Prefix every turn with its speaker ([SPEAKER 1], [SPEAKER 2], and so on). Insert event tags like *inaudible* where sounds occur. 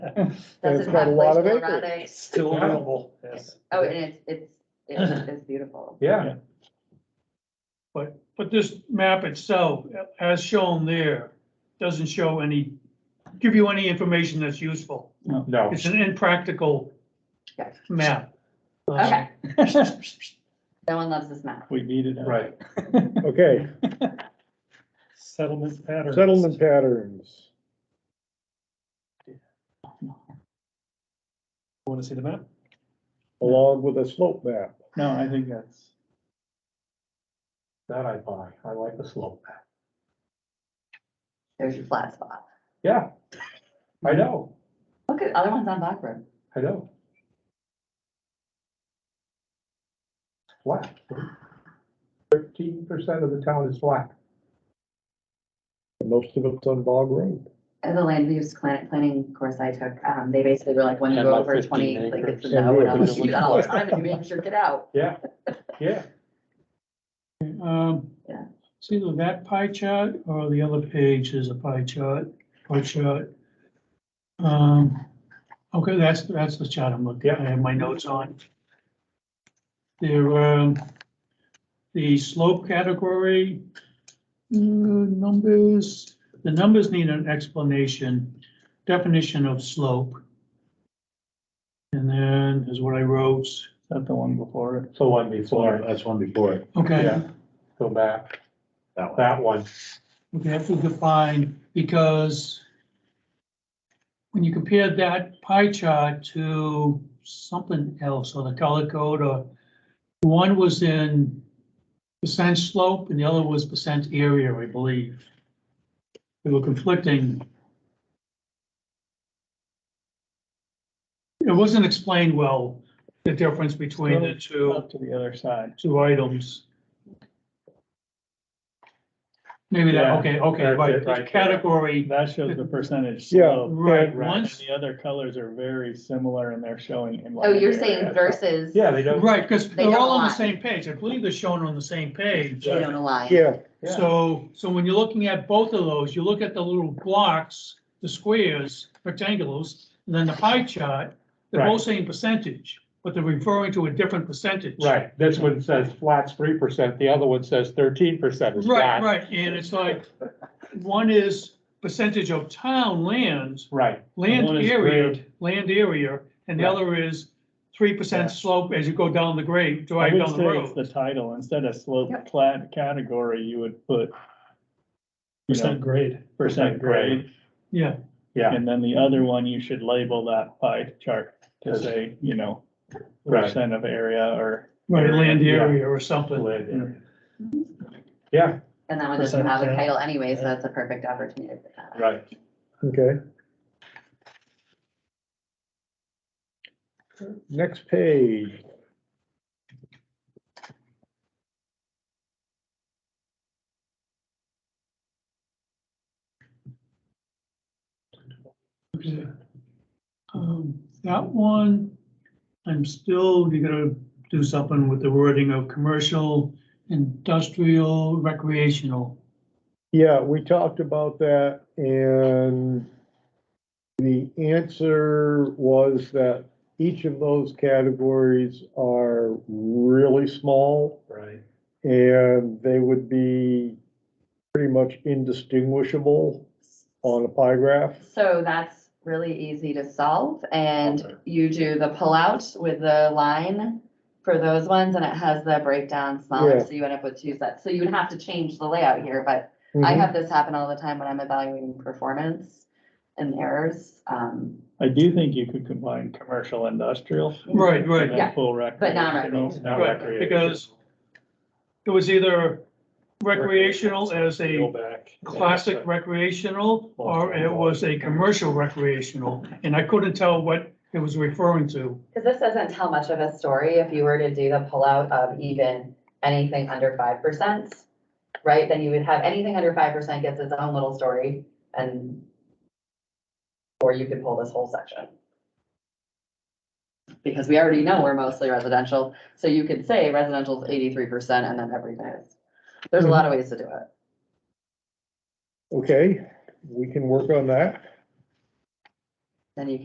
[SPEAKER 1] Doesn't
[SPEAKER 2] It's got a
[SPEAKER 1] have
[SPEAKER 2] lot of
[SPEAKER 1] Glacial
[SPEAKER 2] acreage.
[SPEAKER 1] Radic.
[SPEAKER 3] Still available.
[SPEAKER 4] Yes.
[SPEAKER 1] Oh, and it's,
[SPEAKER 2] *clears throat*
[SPEAKER 1] it's, it's, it's beautiful.
[SPEAKER 3] Yeah,
[SPEAKER 4] But, but this map itself, as shown there, doesn't show any, give you any information that's useful.
[SPEAKER 3] no.
[SPEAKER 4] It's an impractical
[SPEAKER 1] Okay.
[SPEAKER 4] map.
[SPEAKER 2] Uh-huh.
[SPEAKER 1] Okay, no one loves this map.
[SPEAKER 5] We needed it.
[SPEAKER 3] Right.
[SPEAKER 2] Okay,
[SPEAKER 5] Settlement pattern.
[SPEAKER 2] settlement patterns.
[SPEAKER 5] Want to see the map?
[SPEAKER 2] along with a slope map.
[SPEAKER 5] No, I think that's.
[SPEAKER 3] That I buy. I like the slope. map.
[SPEAKER 1] There's your flat spot.
[SPEAKER 3] Yeah. I know,
[SPEAKER 1] Look at other ones on Blackbird.
[SPEAKER 3] I know. Flat. Thirteen percent of the town is flat.
[SPEAKER 2] and Most of it's on Bog Road.
[SPEAKER 1] And the land use plan- planning course I took, um, they basically were like, when you
[SPEAKER 6] And
[SPEAKER 1] go
[SPEAKER 6] like
[SPEAKER 1] over
[SPEAKER 6] 15
[SPEAKER 1] twenty, like it's a
[SPEAKER 2] acres.
[SPEAKER 1] no, and I'm
[SPEAKER 2] Yeah.
[SPEAKER 1] like, you do that Oh, all the time, and you make sure,
[SPEAKER 2] *laughs*
[SPEAKER 1] get out.
[SPEAKER 3] Yeah, yeah.
[SPEAKER 4] Um,
[SPEAKER 1] Yeah.
[SPEAKER 4] see that pie chart or the other page is a pie chart, pie chart. Um, okay, that's, that's the chart I'm looking, at. I have my notes on. There, um, the slope category, uh, numbers, the numbers need an explanation, definition of slope. And then is what I wrote,
[SPEAKER 5] That the one before it.
[SPEAKER 3] So one before,
[SPEAKER 6] That's one before it.
[SPEAKER 4] okay.
[SPEAKER 3] Yeah. go back,
[SPEAKER 6] That one.
[SPEAKER 3] that one.
[SPEAKER 4] we have to define, because when you compare that pie chart to something else, or the color code, or one was in percent slope and the other was percent area, I believe. They were conflicting. It wasn't explained well, the difference between the two,
[SPEAKER 5] Up to the other side.
[SPEAKER 4] two items. Maybe that,
[SPEAKER 5] Yeah,
[SPEAKER 4] okay, okay,
[SPEAKER 3] that's
[SPEAKER 4] right,
[SPEAKER 3] it, right there.
[SPEAKER 4] the category,
[SPEAKER 5] That shows the percentage.
[SPEAKER 2] Yeah.
[SPEAKER 5] slope.
[SPEAKER 4] Right,
[SPEAKER 5] And
[SPEAKER 4] once-
[SPEAKER 5] The other colors are very similar and they're showing. in
[SPEAKER 1] Oh,
[SPEAKER 5] like
[SPEAKER 1] you're
[SPEAKER 5] area.
[SPEAKER 1] saying versus,
[SPEAKER 3] Yeah, they don't,
[SPEAKER 4] Right, because
[SPEAKER 1] They
[SPEAKER 4] they're
[SPEAKER 1] don't
[SPEAKER 4] all on the
[SPEAKER 1] align.
[SPEAKER 4] same page. I believe they're shown on the same page.
[SPEAKER 1] you don't align.
[SPEAKER 2] Yeah,
[SPEAKER 3] Yeah.
[SPEAKER 4] So, so when you're looking at both of those, you look at the little blocks, the squares, rectangles, and then the pie chart. They're
[SPEAKER 3] Right.
[SPEAKER 4] both saying percentage, but they're referring to a different percentage.
[SPEAKER 3] right, this one says flat's three percent, the other one says thirteen percent is
[SPEAKER 4] Right,
[SPEAKER 3] flat.
[SPEAKER 4] right. And it's like, one is percentage of town lands,
[SPEAKER 3] Right,
[SPEAKER 4] land
[SPEAKER 5] One is
[SPEAKER 4] area,
[SPEAKER 5] grade.
[SPEAKER 4] land area, and the
[SPEAKER 3] Yeah.
[SPEAKER 4] other is three
[SPEAKER 5] Yeah.
[SPEAKER 4] percent slope as you go down the grade,
[SPEAKER 5] I
[SPEAKER 4] drive
[SPEAKER 5] would
[SPEAKER 4] down the
[SPEAKER 5] say it's
[SPEAKER 4] road.
[SPEAKER 5] the title. Instead of slope
[SPEAKER 1] Yep.
[SPEAKER 5] plat category, you would put. you know,
[SPEAKER 3] Percent grade.
[SPEAKER 5] Percent grade.
[SPEAKER 4] Yeah,
[SPEAKER 3] yeah,
[SPEAKER 5] And then the other one, you should label that pie chart to
[SPEAKER 3] Yes.
[SPEAKER 5] say, you know,
[SPEAKER 3] right.
[SPEAKER 5] percent of area or.
[SPEAKER 4] right, land
[SPEAKER 3] Yeah.
[SPEAKER 4] area or something.
[SPEAKER 3] Land area. Yeah,
[SPEAKER 1] And that one doesn't
[SPEAKER 5] Percent
[SPEAKER 1] have a
[SPEAKER 5] down.
[SPEAKER 1] title anyway, so that's a perfect opportunity for that.
[SPEAKER 3] right.
[SPEAKER 2] okay. Next page.
[SPEAKER 4] Okay. Um, That one, I'm still, you gotta do something with the wording of commercial, industrial, recreational.
[SPEAKER 2] Yeah, we talked about that and the answer was that each of those categories are really small
[SPEAKER 3] Right.
[SPEAKER 2] and they would be pretty much indistinguishable on a pie graph.
[SPEAKER 1] So that's really easy to solve
[SPEAKER 3] Okay.
[SPEAKER 1] and you do the pullout with the line for those ones and it has the breakdown
[SPEAKER 2] Yeah.
[SPEAKER 1] smaller, so you end up with two sets. So you would have to change the layout here, but I
[SPEAKER 2] Mhm.
[SPEAKER 1] have this happen all the time when I'm evaluating performance and errors. Um,
[SPEAKER 5] I do think you could combine commercial, industrial.
[SPEAKER 4] Right, right.
[SPEAKER 5] and then
[SPEAKER 1] Yeah.
[SPEAKER 5] Full
[SPEAKER 1] But not
[SPEAKER 5] recreational.
[SPEAKER 3] Now
[SPEAKER 4] Right,
[SPEAKER 3] recreation.
[SPEAKER 4] because- It was either recreational as
[SPEAKER 3] Go
[SPEAKER 4] a
[SPEAKER 3] back.
[SPEAKER 4] classic recreational, or it was a commercial recreational, and I couldn't tell what it was referring to.
[SPEAKER 1] Because this doesn't tell much of a story if you were to do the pullout of even anything under five percent, right? Then you would have anything under five percent gets its own little story and or you could pull this whole section. Because we already know we're mostly residential, so you could say residential is eighty-three percent and then everything is. There's a lot of ways to do it.
[SPEAKER 2] Okay, we can work on that.
[SPEAKER 1] Then you